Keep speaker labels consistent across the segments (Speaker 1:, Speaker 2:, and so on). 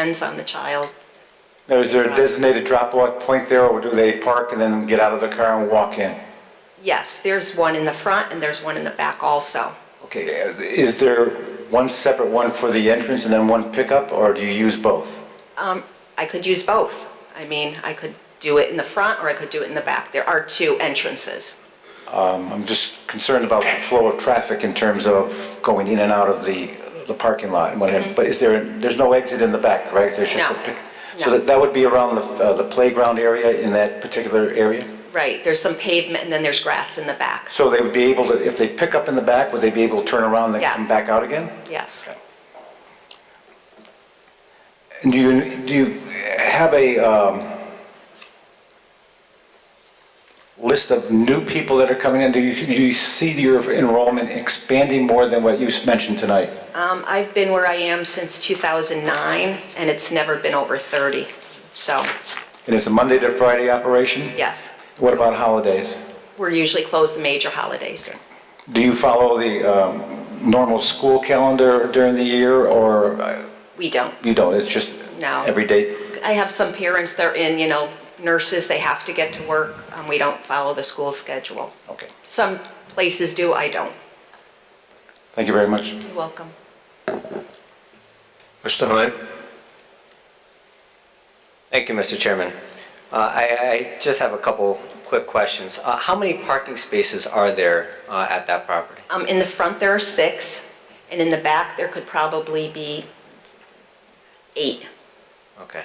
Speaker 1: Depends on the child.
Speaker 2: Now, is there a designated drop-off point there, or do they park and then get out of the car and walk in?
Speaker 1: Yes, there's one in the front and there's one in the back also.
Speaker 2: Okay, uh, is there one separate one for the entrance and then one pickup, or do you use both?
Speaker 1: Um, I could use both. I mean, I could do it in the front or I could do it in the back. There are two entrances.
Speaker 2: Um, I'm just concerned about the flow of traffic in terms of going in and out of the, the parking lot and whatever. But is there, there's no exit in the back, right? There's just a
Speaker 1: No.
Speaker 2: pick-
Speaker 1: No.
Speaker 2: So that, that would be around the, uh, the playground area in that particular area?
Speaker 1: Right, there's some pavement and then there's grass in the back.
Speaker 2: So they would be able to, if they pick up in the back, would they be able to turn around and then come
Speaker 1: Yes.
Speaker 2: back out again?
Speaker 1: Yes.
Speaker 2: And do you, do you have a um, list of new people that are coming in? Do you, do you see your enrollment expanding more than what you mentioned tonight?
Speaker 1: Um, I've been where I am since 2009 and it's never been over 30. So,
Speaker 2: And it's a Monday to Friday operation?
Speaker 1: yes,
Speaker 2: What about holidays?
Speaker 1: we're usually closed the major holidays.
Speaker 2: Do you follow the um, normal school calendar during the year, or uh,
Speaker 1: We don't.
Speaker 2: you don't? It's just
Speaker 1: No.
Speaker 2: every day?
Speaker 1: I have some parents, they're in, you know, nurses, they have to get to work. Um, we don't follow the school schedule.
Speaker 2: Okay.
Speaker 1: Some places do, I don't.
Speaker 2: Thank you very much.
Speaker 1: You're welcome.
Speaker 3: Mr. Hahn?
Speaker 4: Thank you, Mr. Chairman. Uh, I I just have a couple quick questions. Uh, How many parking spaces are there uh, at that property?
Speaker 1: Um, in the front, there are six, and in the back, there could probably be eight.
Speaker 4: Okay.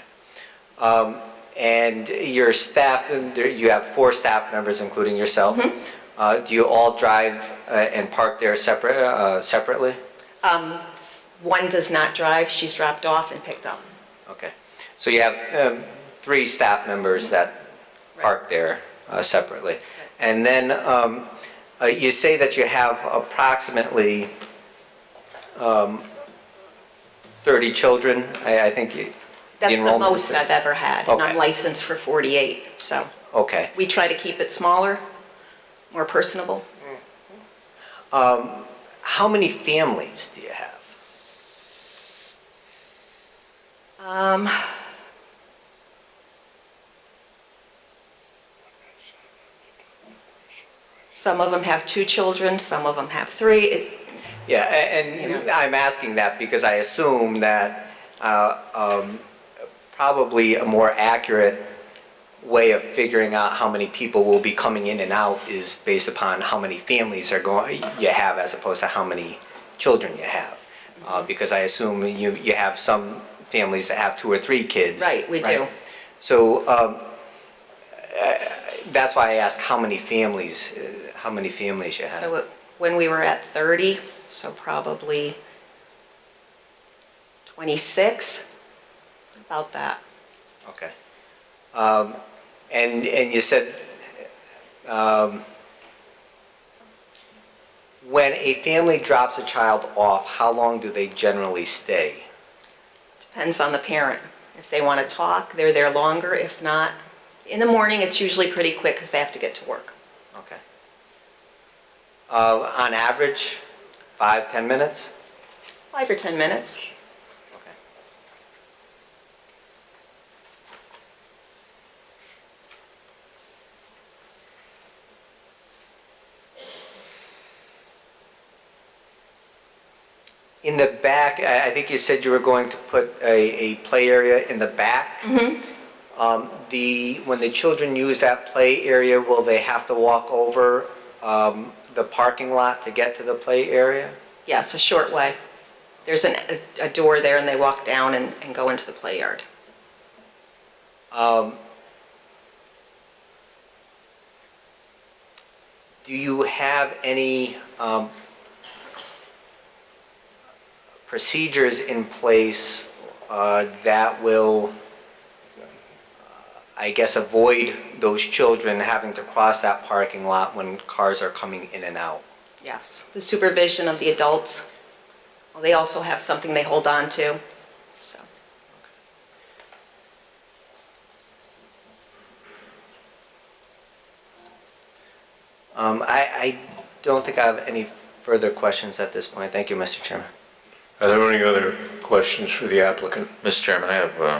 Speaker 4: Um, And your staff, and there- you have four staff members, including yourself. Uh, Do you all drive uh, and park there separate- uh, separately?
Speaker 1: One does not drive, she's dropped off and picked up.
Speaker 4: Okay. So you have um, three staff members that park there uh, separately. And then um, uh, you say that you have approximately um, 30 children, I I think you...
Speaker 1: That's the
Speaker 4: enrollment is
Speaker 1: most I've ever had, and I'm
Speaker 4: Okay.
Speaker 1: licensed for 48, so
Speaker 4: Okay.
Speaker 1: we try to keep it smaller, more personable.
Speaker 4: How many families do you have?
Speaker 1: Um, some of them have two children, some of them have three. It-
Speaker 4: Yeah, a- and I'm asking that because I assume that uh, um, probably a more accurate way of figuring out how many people will be coming in and out is based upon how many families are going, you have as opposed to how many children you have. Uh, Because I assume you, you have some families that have two or three kids.
Speaker 1: Right, we do.
Speaker 4: So um, uh, that's why I ask how many families, uh, how many families you have.
Speaker 1: So it- when we were at 30, so probably 26, about that.
Speaker 4: Okay. Um, And, and you said, um, when a family drops a child off, how long do they generally stay?
Speaker 1: Depends on the parent. If they want to talk, they're there longer. If not, in the morning, it's usually pretty quick because they have to get to work.
Speaker 4: Okay. Uh, On average, five, 10 minutes?
Speaker 1: Five or 10 minutes.
Speaker 4: Okay. In the back, I I think you said you were going to put a a play area in the back. Um, The, when the children use that play area, will they have to walk over um, the parking lot to get to the play area?
Speaker 1: Yes, a short way. There's an, a- a door there and they walk down and, and go into the play yard.
Speaker 4: Um, Do you have any um, procedures in place uh, that will, uh, I guess, avoid those children having to cross that parking lot when cars are coming in and out?
Speaker 1: Yes. The supervision of the adults. Well, They also have something they hold on to, so.
Speaker 4: Um, I I don't think I have any further questions at this point. Thank you, Mr. Chairman.
Speaker 3: Are there any other questions for the applicant?
Speaker 5: Mr. Chairman, I have uh,